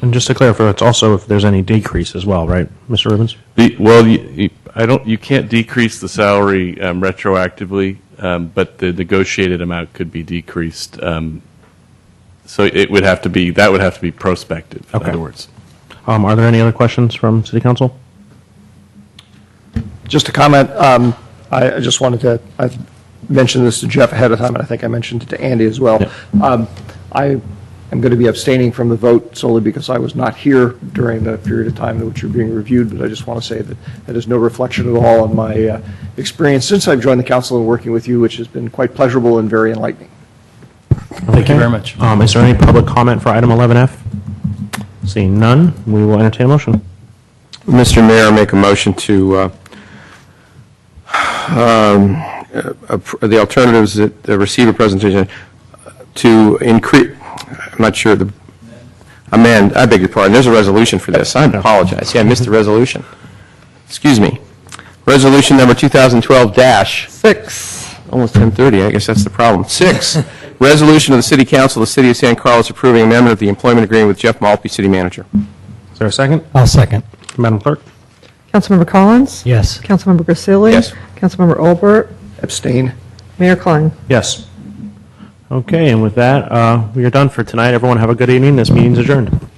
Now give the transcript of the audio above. And just to clarify, it's also if there's any decrease as well, right, Mr. Rubens? The, well, you, you- I don't. You can't decrease the salary um, retroactively, um, but the negotiated amount could be decreased. Um, so it would have to be that would have to be prospective. Okay. In other words, Um, are there any other questions from City Council? Just a comment, um, I I just wanted to, I mentioned this to Jeff ahead of time, and I think I mentioned it to Andy as well. Um, I am going to be abstaining from the vote solely because I was not here during the period of time in which you're being reviewed, but I just want to say that that is no reflection at all on my uh, experience since I've joined the council and working with you, which has been quite pleasurable and very enlightening. Thank you very much. Um, is there any public comment for item 11F? Seeing none, we will entertain a motion. Mr. Mayor, I make a motion to, uh, um, uh, appro- the alternatives that uh, receive a presentation, to increase, I'm not sure, the amend, I beg your pardon, there's a resolution for this, I apologize, yeah, I missed the resolution. Excuse me. Resolution number 2012 dash, Six. almost 10:30, I guess that's the problem. Six, resolution of the City Council of the City of San Carlos approving amendment of the employment agreement with Jeff Malpe, City Manager. Is there a second? I'll second. Madam Clerk? Councilmember Collins? Yes. Councilmember Grisilli? Yes. Councilmember Olbert? Abstain. Mayor Klein? Yes. Okay, and with that, uh, we are done for tonight. Everyone have a good evening. This meeting's adjourned.